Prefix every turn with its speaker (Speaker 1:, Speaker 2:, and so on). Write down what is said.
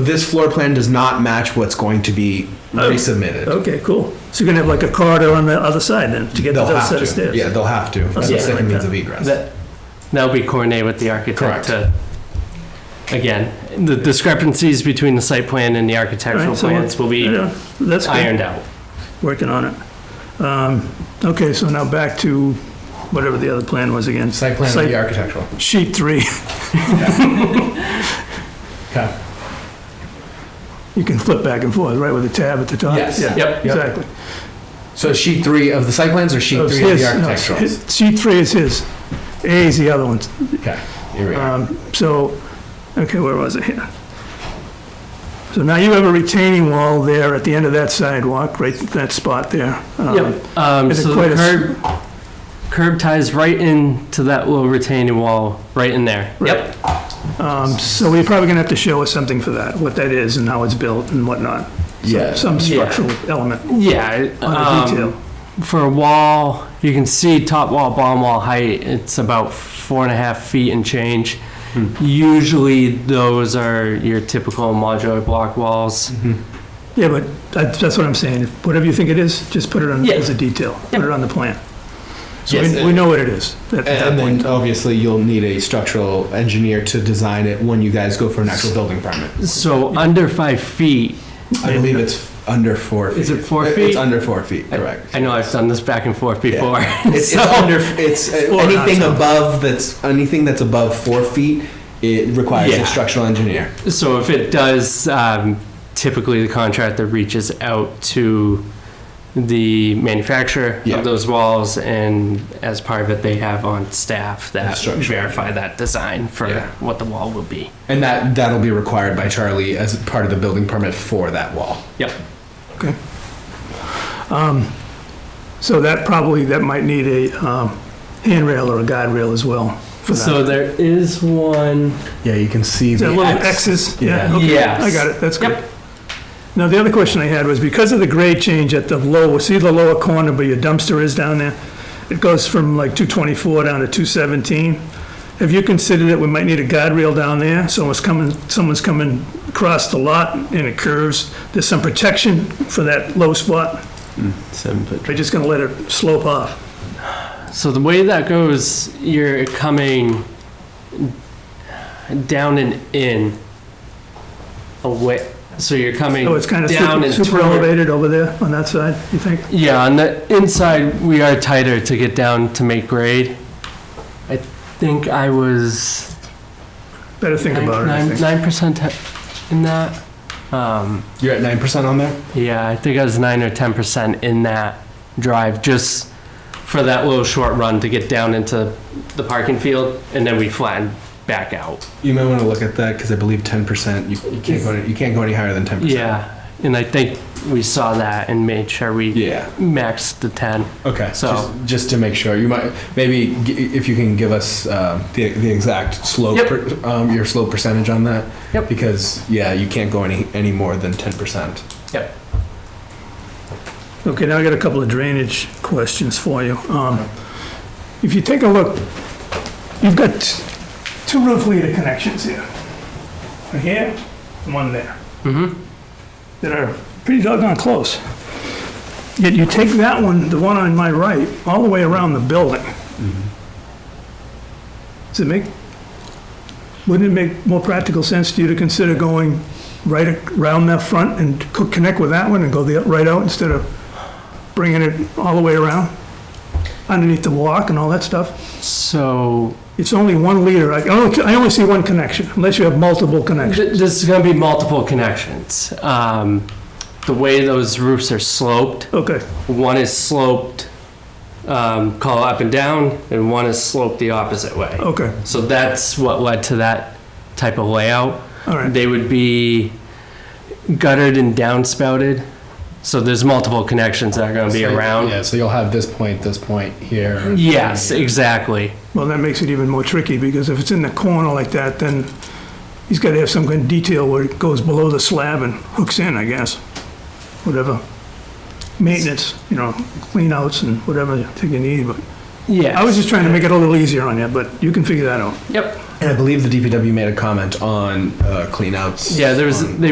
Speaker 1: This floor plan does not match what's going to be
Speaker 2: Oh.
Speaker 1: resubmitted.
Speaker 2: Okay, cool. So you're gonna have like a corridor on the other side then to get to
Speaker 1: They'll
Speaker 2: the other
Speaker 1: have
Speaker 2: set of
Speaker 1: to,
Speaker 2: stairs?
Speaker 1: yeah, they'll have to, for the
Speaker 2: something
Speaker 1: second
Speaker 2: like
Speaker 1: means
Speaker 2: that.
Speaker 1: of egress.
Speaker 3: That, that'll be coordinated with the
Speaker 1: Correct.
Speaker 3: architect to, again, the discrepancies between the site plan and the architectural
Speaker 2: Alright, so
Speaker 3: plans will be
Speaker 2: Yeah, That's good,
Speaker 3: ironed out.
Speaker 2: working on it. Um, Okay, so now back to whatever the other plan was again.
Speaker 1: Site plan and the architectural.
Speaker 2: Sheet three,
Speaker 1: Okay.
Speaker 2: you can flip back and forth, right, with the tab at the top?
Speaker 1: Yes.
Speaker 2: Yeah,
Speaker 1: Yep.
Speaker 3: Yep.
Speaker 2: Exactly.
Speaker 1: So sheet three of the site plans or sheet
Speaker 2: So it's
Speaker 1: three of the
Speaker 2: his- Oh, no, it's
Speaker 1: architectural?
Speaker 2: his- Sheet three is his. A is the other one.
Speaker 1: Okay, here we are.
Speaker 2: Um, So, okay, where was it here? So now you have a retaining wall there at the end of that sidewalk, right, that spot there. Um,
Speaker 3: Yep. Um,
Speaker 2: Is it
Speaker 3: so
Speaker 2: quite
Speaker 3: the
Speaker 2: a s-
Speaker 3: curb, curb ties right into that little retaining wall, right in there.
Speaker 2: Right. Um, So we're probably going to have to show us something for that, what that is and how it's built and whatnot. Some-
Speaker 1: Yeah.
Speaker 2: Some structural element
Speaker 3: Yeah.
Speaker 2: on
Speaker 3: um,
Speaker 2: the detail.
Speaker 3: For a wall, you can see top wall, bottom wall height, it's about four and a half feet and change.
Speaker 2: Hmm.
Speaker 3: Usually those are your typical modular block walls.
Speaker 2: Yeah, but that's that's what I'm saying. If- Whatever you think it is, just put it on,
Speaker 3: Yeah.
Speaker 2: as a detail. Put it on the plan. So
Speaker 1: Yes,
Speaker 2: we- we
Speaker 1: and-
Speaker 2: know what it is. at that
Speaker 1: And
Speaker 2: point.
Speaker 1: then obviously you'll need a structural engineer to design it when you guys go for an actual building permit.
Speaker 3: So under five feet,
Speaker 1: I believe it's under four feet.
Speaker 3: Is it four
Speaker 1: It's
Speaker 3: feet?
Speaker 1: under four feet, correct.
Speaker 3: I know I've done this back and forth before.
Speaker 1: It's, it's under, it's, uh,
Speaker 2: Four, not
Speaker 1: anything
Speaker 2: seven.
Speaker 1: above that's, anything that's above four feet, it requires
Speaker 3: Yeah.
Speaker 1: a structural engineer.
Speaker 3: So if it does, um, typically the contractor reaches out to the manufacturer
Speaker 1: Yeah.
Speaker 3: of those walls, and as part of it, they have on staff that
Speaker 1: Instruction.
Speaker 3: verify that design for
Speaker 1: Yeah.
Speaker 3: what the wall will be.
Speaker 1: And that, that'll be required by Charlie as part of the building permit for that wall.
Speaker 3: Yep.
Speaker 2: So that probably, that might need a um, handrail or a guide rail as well for that.
Speaker 3: So there is one.
Speaker 1: Yeah, you can see
Speaker 2: Is
Speaker 1: the
Speaker 2: that little
Speaker 1: X.
Speaker 2: X's?
Speaker 1: Yeah.
Speaker 2: okay.
Speaker 3: Yes.
Speaker 2: I got it, that's good.
Speaker 3: Yep.
Speaker 2: Now, the other question I had was because of the grade change at the lower, see the lower corner where your dumpster is down there? It goes from like 224 down to 217. Have you considered that we might need a guide rail down there? So it's coming, someone's coming across the lot and it curves. There's some protection for that low spot.
Speaker 3: Seven foot.
Speaker 2: They're just gonna let it slope off.
Speaker 3: So the way that goes, you're coming down and in away. So you're coming
Speaker 2: So it's kind of
Speaker 3: down
Speaker 2: super
Speaker 3: and
Speaker 2: super
Speaker 3: toward-
Speaker 2: elevated over there on that side, you think?
Speaker 3: Yeah, on the inside, we are tighter to get down to make grade. I think I was
Speaker 2: Better think about it, I think.
Speaker 3: nine percent in that. Um,
Speaker 1: You're at nine percent on there?
Speaker 3: yeah, I think I was nine or ten percent in that drive, just for that little short run to get down into the parking field, and then we flattened back out.
Speaker 1: You might want to look at that because I believe ten percent, you, you can't go, any- you can't go any higher than ten percent.
Speaker 3: Yeah, and I think we saw that and made sure we
Speaker 1: Yeah,
Speaker 3: maxed the ten.
Speaker 1: okay.
Speaker 3: So-
Speaker 1: Just, just to make sure, you might, maybe g- if you can give us, um, the, the exact slope,
Speaker 3: Yep.
Speaker 1: per- um, your slope percentage on that.
Speaker 3: Yep.
Speaker 1: Because, yeah, you can't go any, any more than ten percent.
Speaker 2: Okay, now I got a couple of drainage questions for you. Um, If you take a look, you've got t- two roof leader connections here. One here, and one there,
Speaker 3: Mm-hmm.
Speaker 2: that are pretty doggone close. Yet you take that one, the one on my right, all the way around the building. Does it make, wouldn't it make more practical sense to you to consider going right around that front and co- connect with that one and go the, right out instead of bringing it all the way around? Underneath the walk and all that stuff?
Speaker 3: So
Speaker 2: It's only one leader. I I only, I only see one connection, unless you have multiple connections.
Speaker 3: Th- There's going to be multiple connections. Um, The way those roofs are sloped,
Speaker 2: Okay,
Speaker 3: one is sloped, um, call up and down, and one is sloped the opposite way.
Speaker 2: okay,
Speaker 3: So that's what led to that type of layout.
Speaker 2: all right.
Speaker 3: They would be guttered and downspouted, so there's multiple connections that are going to be
Speaker 1: So-
Speaker 3: around.
Speaker 1: Yeah, so you'll have this point, this point here. and
Speaker 3: Yes,
Speaker 1: here.
Speaker 3: exactly.
Speaker 2: Well, that makes it even more tricky, because if it's in the corner like that, then he's gotta have some kind of detail where it goes below the slab and hooks in, I guess. Whatever. Maintenance, you know, clean outs and whatever you think you need, but
Speaker 3: Yeah.
Speaker 2: I was just trying to make it a little easier on you, but you can figure that out.
Speaker 3: Yep. And I believe the DPW made a comment on uh, cleanouts.
Speaker 1: uh, Yeah, there was,
Speaker 3: on-
Speaker 1: they